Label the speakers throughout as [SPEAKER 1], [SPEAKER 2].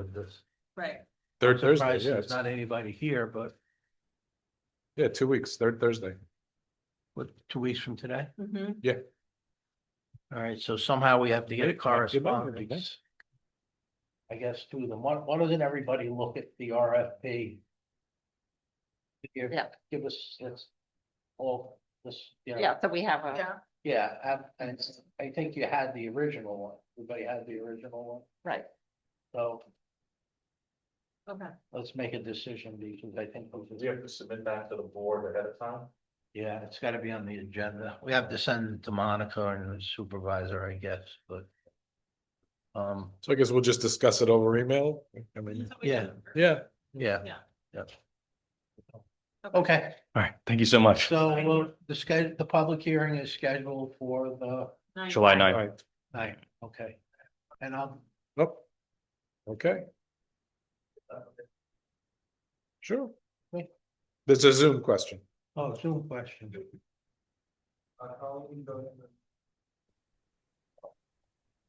[SPEAKER 1] of this.
[SPEAKER 2] Right,
[SPEAKER 3] Third Thursday,
[SPEAKER 1] Surprised
[SPEAKER 3] yeah,
[SPEAKER 1] There's
[SPEAKER 3] it's-
[SPEAKER 1] not anybody here, but
[SPEAKER 3] yeah, two weeks, third Thursday.
[SPEAKER 1] what, two weeks from today?
[SPEAKER 2] mhm.
[SPEAKER 1] All right, so somehow we have to get a
[SPEAKER 3] Right, back to your bottom, I
[SPEAKER 1] correspondence. I guess to them, why, why doesn't everybody look at the RFP? Here,
[SPEAKER 4] Yeah.
[SPEAKER 1] Give us, this all, this, you know,
[SPEAKER 4] Yeah, so we have a,
[SPEAKER 2] yeah,
[SPEAKER 1] yeah, I- and it's- I think you had the original one, everybody had the original one,
[SPEAKER 4] right,
[SPEAKER 1] so
[SPEAKER 2] okay,
[SPEAKER 1] let's make a decision because I think. those are-
[SPEAKER 5] Do you have to submit that to the board ahead of time?
[SPEAKER 1] Yeah, it's gotta be on the agenda. We have to send it to Monica and the supervisor, I guess, but. Um,
[SPEAKER 3] So I guess we'll just discuss it over email. I mean,
[SPEAKER 1] yeah,
[SPEAKER 3] yeah,
[SPEAKER 1] yeah.
[SPEAKER 2] Yeah.
[SPEAKER 1] Yep. Okay,
[SPEAKER 6] All right, thank you so much.
[SPEAKER 1] so we'll- the schedule, the public hearing is scheduled for the
[SPEAKER 2] Nine-
[SPEAKER 6] July
[SPEAKER 3] all
[SPEAKER 6] ninth.
[SPEAKER 3] right,
[SPEAKER 1] night, okay? And I'll,
[SPEAKER 3] nope. Okay. Sure.
[SPEAKER 1] Wait.
[SPEAKER 3] There's a Zoom question.
[SPEAKER 1] oh, Zoom question.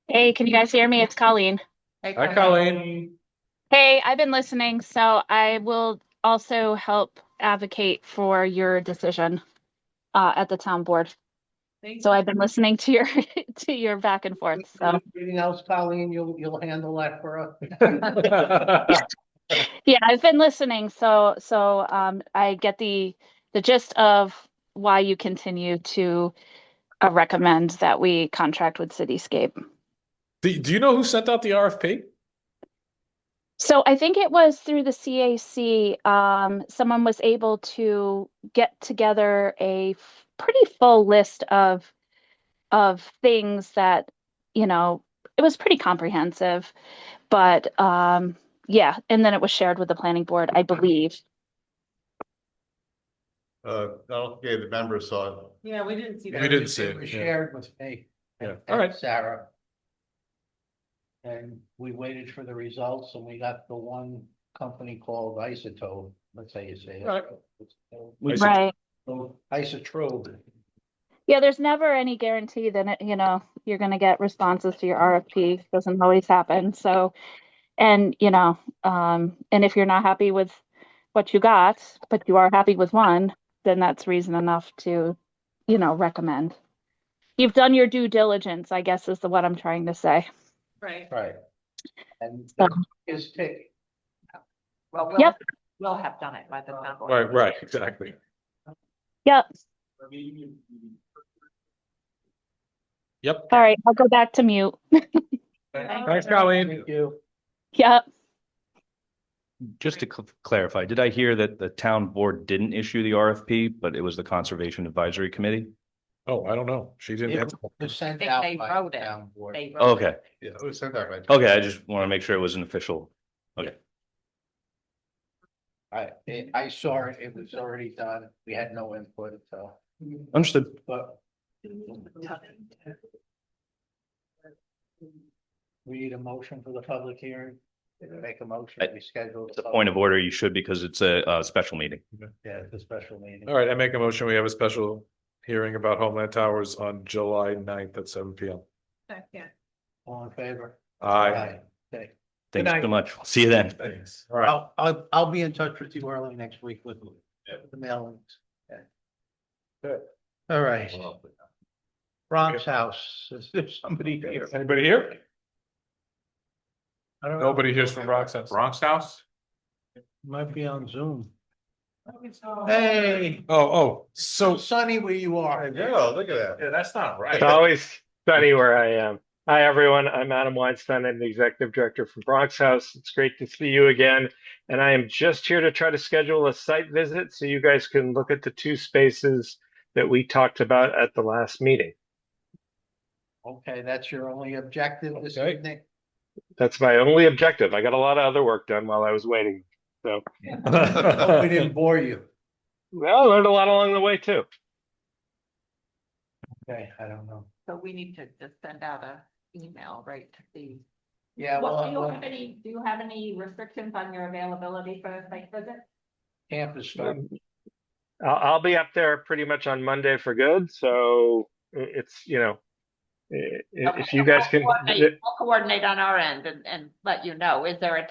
[SPEAKER 7] Hey, can you guys hear me? It's Colleen.
[SPEAKER 2] Hey,
[SPEAKER 3] Hi,
[SPEAKER 2] Colleen.
[SPEAKER 3] Colleen.
[SPEAKER 7] Hey, I've been listening, so I will also help advocate for your decision uh, at the town board.
[SPEAKER 2] Thank
[SPEAKER 7] So
[SPEAKER 2] you.
[SPEAKER 7] I've been listening to your to your back and forth. So
[SPEAKER 1] Anything else, Colleen? You'll, you'll handle that for us?
[SPEAKER 7] yeah, I've been listening. So so um, I get the the gist of why you continue to uh, recommend that we contract with Cityscape.
[SPEAKER 3] Do, do you know who sent out the RFP?
[SPEAKER 7] So I think it was through the CAC, um, someone was able to get together a f- pretty full list of of things that, you know, it was pretty comprehensive, but um, yeah, and then it was shared with the planning board, I believe.
[SPEAKER 5] Uh, okay, the members saw it.
[SPEAKER 2] Yeah, we didn't see
[SPEAKER 3] We
[SPEAKER 2] that.
[SPEAKER 3] didn't see it,
[SPEAKER 1] was
[SPEAKER 3] yeah.
[SPEAKER 1] Shared with me.
[SPEAKER 3] Yeah,
[SPEAKER 1] and-
[SPEAKER 3] all right.
[SPEAKER 1] and Sarah. And we waited for the results and we got the one company called Isotope, let's say you say.
[SPEAKER 3] Right.
[SPEAKER 1] it.
[SPEAKER 3] Is it-
[SPEAKER 7] Right.
[SPEAKER 1] Isotrope,
[SPEAKER 7] Yeah, there's never any guarantee that, it- you know, you're going to get responses to your RFP. Doesn't always happen. So, and, you know, um, and if you're not happy with what you got, but you are happy with one, then that's reason enough to, you know, recommend. You've done your due diligence, I guess, is the what I'm trying to say.
[SPEAKER 2] Right,
[SPEAKER 1] right. And
[SPEAKER 7] So-
[SPEAKER 1] is tick,
[SPEAKER 4] well, we'll,
[SPEAKER 7] Yep.
[SPEAKER 4] we'll have done it by the town board.
[SPEAKER 3] Right, right, exactly.
[SPEAKER 7] Yep.
[SPEAKER 3] Yep.
[SPEAKER 7] All right. I'll go back to mute.
[SPEAKER 3] Thanks, Colleen.
[SPEAKER 1] thank you.
[SPEAKER 7] Yep.
[SPEAKER 6] Just to cl- clarify, did I hear that the town board didn't issue the RFP, but it was the Conservation Advisory Committee?
[SPEAKER 3] Oh, I don't know. She didn't.
[SPEAKER 1] It
[SPEAKER 3] answer.
[SPEAKER 1] was sent
[SPEAKER 4] They-
[SPEAKER 1] out
[SPEAKER 4] they
[SPEAKER 1] by
[SPEAKER 4] wrote
[SPEAKER 1] the
[SPEAKER 4] it.
[SPEAKER 1] town board.
[SPEAKER 4] They wrote it.
[SPEAKER 6] Okay,
[SPEAKER 5] Yeah,
[SPEAKER 3] Oh,
[SPEAKER 5] it was sent out right.
[SPEAKER 6] okay, I just want to make sure it was an official.
[SPEAKER 1] I, it- I saw it, it was already done, we had no input, so,
[SPEAKER 6] Understood.
[SPEAKER 1] but we need a motion for the public hearing. Make a motion, we schedule.
[SPEAKER 6] It's a point of
[SPEAKER 1] public-
[SPEAKER 6] order you should because it's a, uh special meeting.
[SPEAKER 1] Yeah, it's a special meeting.
[SPEAKER 3] All right, I make a motion. We have a special hearing about Homeland Towers on July 9th at seven P M.
[SPEAKER 2] second,
[SPEAKER 1] All in favor?
[SPEAKER 3] Aye.
[SPEAKER 1] Okay,
[SPEAKER 6] Thanks
[SPEAKER 1] night.
[SPEAKER 6] so much. See you then.
[SPEAKER 3] Thanks. All right.
[SPEAKER 1] I'll, I'll, I'll be in touch with you early next week with the mailings. Okay.
[SPEAKER 3] Good.
[SPEAKER 1] All right, Ron's house, is there somebody here?
[SPEAKER 3] Anybody here?
[SPEAKER 1] I don't know.
[SPEAKER 3] Nobody hears from Roxanne.
[SPEAKER 5] Bronx House?
[SPEAKER 1] Might be on Zoom. Hey,
[SPEAKER 3] Oh, oh, so,
[SPEAKER 1] so sunny where you are.
[SPEAKER 5] look at that. Yeah, that's not right.
[SPEAKER 8] It's always sunny where I am. Hi, everyone. I'm Adam Weinstein. I'm the executive director from Bronx House. It's great to see you again. And I am just here to try to schedule a site visit so you guys can look at the two spaces that we talked about at the last meeting.
[SPEAKER 1] Okay, that's your only objective this
[SPEAKER 3] Okay.
[SPEAKER 1] evening?
[SPEAKER 8] That's my only objective. I got a lot of other work done while I was waiting.
[SPEAKER 1] Hope we didn't bore you.
[SPEAKER 8] Well, I learned a lot along the way too.
[SPEAKER 1] Okay, I don't know.
[SPEAKER 4] So we need to just send out a email, right, to the.
[SPEAKER 1] Yeah,
[SPEAKER 4] Well,
[SPEAKER 1] well,
[SPEAKER 4] do you
[SPEAKER 1] well,
[SPEAKER 4] have any, do you have any restrictions on your availability for a site visit?
[SPEAKER 1] camp is starting.
[SPEAKER 8] Um, I'll, I'll be up there pretty much on Monday for good. So i- it's, you know, i- i- if you guys
[SPEAKER 4] I'll
[SPEAKER 8] can.
[SPEAKER 4] coordinate- I'll coordinate on our end and, and let you know. Is there a